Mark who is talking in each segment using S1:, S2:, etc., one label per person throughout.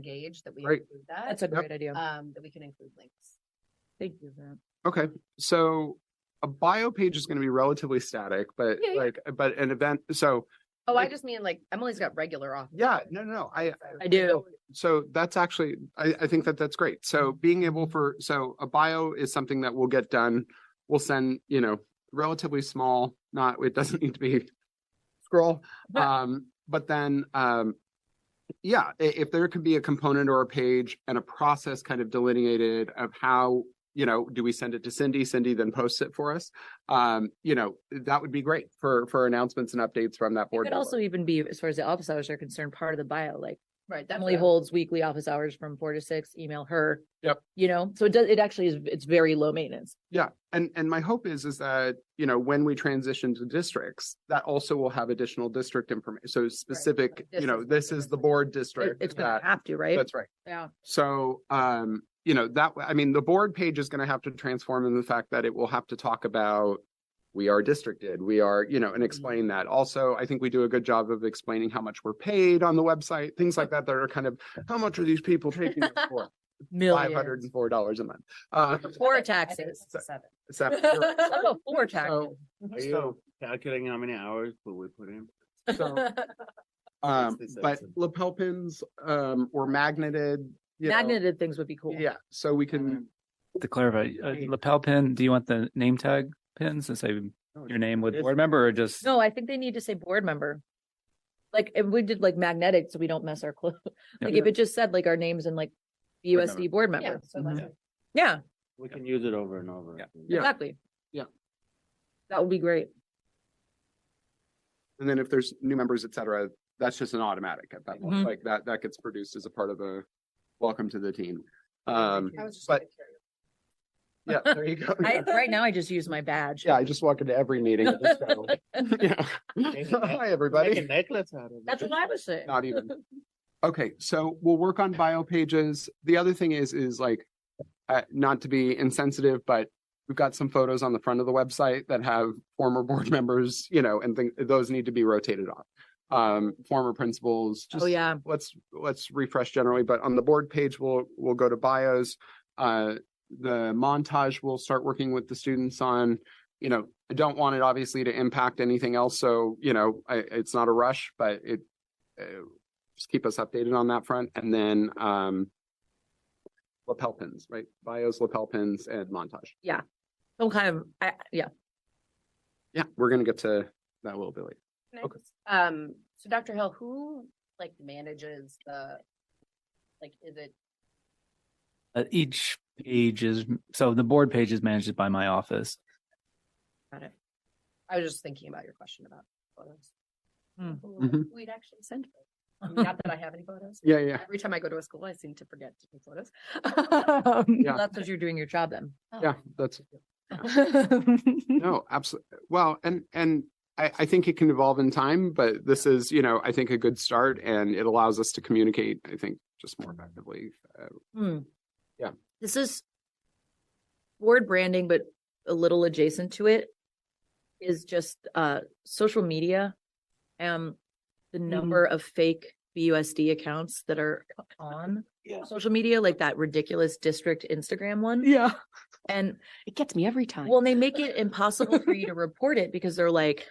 S1: engaged, that we
S2: Great.
S1: include that,
S3: That's a
S2: Yep.
S3: great idea.
S1: um, that we can include links.
S3: Thank you. for that.
S2: Okay, so a bio page is going to be relatively static, but
S1: Yeah, yeah.
S2: like, but an event. So
S1: Oh, I
S2: Like-
S1: just mean like Emily's got regular off.
S2: yeah, no, no, no. I
S3: I do.
S2: so that's actually I, I think that that's great. So
S3: Mm-hmm.
S2: being able for so a bio is something that will get done. We'll send you know relatively small. Not it doesn't need to be scroll. Um, but then um, yeah, i- if there could be a component or a page and a process kind of delineated of how you know do we send it to Cindy? Cindy then posts it for us. Um, you know that would be great for for announcements and updates from that
S3: It
S2: board.
S3: could
S2: member.
S3: also even be, as far as the office hours are concerned, part of the bio, like
S1: Right. that's
S3: Emily
S1: what I-
S3: holds weekly office hours from four to six, email her.
S2: Yep.
S3: You know, so it does, it actually is, it's very low maintenance.
S2: Yeah, and and my hope is is that you know when we transition to districts, that also will have additional district information. So specific,
S1: This
S2: you know,
S1: is the
S2: this is the
S1: district.
S2: board
S3: It-
S2: district.
S3: It's gonna
S2: that-
S3: have to, right?
S2: That's right.
S3: Yeah.
S2: So um, you know that I mean the board page is going to have to transform in the fact that it will have to talk about we are districted, we are you know, and
S3: Mm-hmm.
S2: explain that. Also, I think we do a good job of explaining how much we're paid on the website, things like that. That are kind of how much are these people taking us for? Five hundred
S3: Millions.
S2: and four dollars a month. Uh,
S1: I
S3: Four
S1: think
S3: taxes.
S1: it's seven.
S2: so-
S3: Oh, four taxes.
S2: so-
S4: Are you
S2: So,
S4: calculating how many hours will we put in?
S2: so, um,
S4: Sixty
S2: but
S4: cents.
S2: lapel pins, um, were magneted, you know,
S3: Magneted things would be cool.
S2: Yeah, so we can,
S5: To clarify, uh,
S2: Hey.
S5: lapel pin, do you want the name tag pins to say your name with
S4: Yes.
S5: board member or just?
S3: No, I think they need to say board member. Like, if we did like magnetic, so we don't mess our clothes. Like, if it just said like our names and like USD board
S1: Yeah,
S3: member.
S1: so that's
S2: Mm-hmm.
S5: Mhm.
S1: it.
S3: Yeah,
S4: We can use it over and over.
S5: Yeah.
S2: Yeah.
S3: exactly.
S2: Yeah.
S3: That would be great.
S2: and then if there's new members, et cetera, that's just an automatic at that point,
S3: Mhm.
S2: like that, that gets produced as a part of a welcome to the team. Um,
S1: I was just
S2: but-
S1: gonna carry it.
S2: yeah, there you go.
S3: I, right now, I just use my badge.
S2: Yeah, I just walk into every meeting. and just go, yeah. Hi,
S4: Make a
S2: everybody.
S4: necklace out of it.
S3: That's what I was saying.
S2: Not even. Okay, so we'll work on bio pages. The other thing is, is like, uh, not to be insensitive, but we've got some photos on the front of the website that have former board members, you know, and think those need to be rotated on. Um, former principals.
S3: Oh, yeah.
S2: Let's let's refresh generally, but on the board page, we'll we'll go to bios. Uh, the montage we'll start working with the students on. You know, I don't want it obviously to impact anything else, so you know, I, it's not a rush, but it uh, just keep us updated on that front. And then um lapel pins, right? Bios, lapel pins, and montage.
S3: Some kind of, I, yeah.
S2: Yeah, we're gonna get to that a little bit later.
S1: Can I
S2: Okay.
S1: just- Um, so Dr. Hill, who like manages the, like, is it,
S5: Uh, each page is, so the board page is managed by my office.
S1: I was just thinking about your question about photos.
S3: Hmm.
S1: Who
S2: Mm-hmm.
S1: We'd actually send. photos. I mean, Not that I have any photos.
S2: Yeah, yeah.
S1: Every time I go to a school, I seem to forget to take photos.
S3: Well, That's what you're doing your job then.
S2: Yeah, that's no, absolutely. Well, and and I, I think it can evolve in time, but this is, you know, I think a good start and it allows us to communicate, I think, just more effectively. Uh,
S3: Hmm.
S2: Yeah.
S3: This is word branding, but a little adjacent to it is just uh social media. Um the
S2: Mm-hmm.
S3: number of fake BUSD accounts that are on
S4: Yeah.
S3: social media, like that ridiculous district Instagram one.
S2: yeah.
S3: And
S6: It gets me every time.
S3: well, and they make it impossible for you to report it because they're like,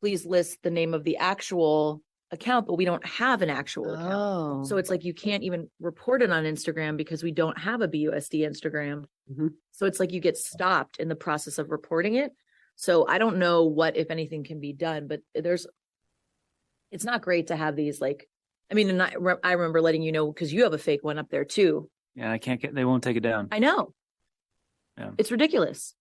S3: please list the name of the actual account, but we don't have an actual account.
S6: oh,
S3: So it's like you can't even report it on Instagram because we don't have a BUSD Instagram.
S2: Mhm.
S3: So it's like you get stopped in the process of reporting it. So I don't know what, if anything, can be done, but there's, it's not great to have these like, I mean, and I, re- I remember letting you know because you have a fake one up there too.
S5: Yeah, I can't get, they won't take it down.
S3: I know.
S5: Yeah.
S3: It's ridiculous.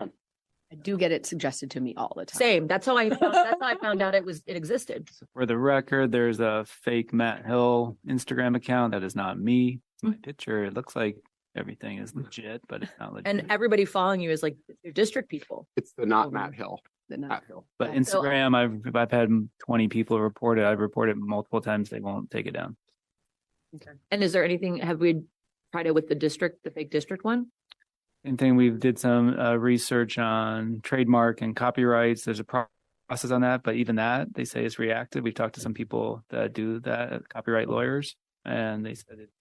S6: I do get it suggested to me all the time.
S3: Same. That's how I found, that's how I found out it was it existed.
S5: So For the record, there's a fake Matt Hill Instagram account. That is not me. It's my picture. It looks like everything is legit, but it's not legit.
S3: And everybody following you is like your district people.
S2: It's the not
S6: Mhm.
S2: Matt Hill.
S6: The
S2: Matt
S6: nut.
S2: Hill.
S5: But
S3: So-
S5: Instagram, I've, I've had 20 people report it. I've reported multiple times. They won't take it down.
S3: And is there anything, have we tried it with the district, the fake district one?
S5: Same thing. We did some uh, research on trademark and copyrights. There's a pro- process on that, but even that they say is reactive. We've talked to some people that do that, copyright lawyers, and they said it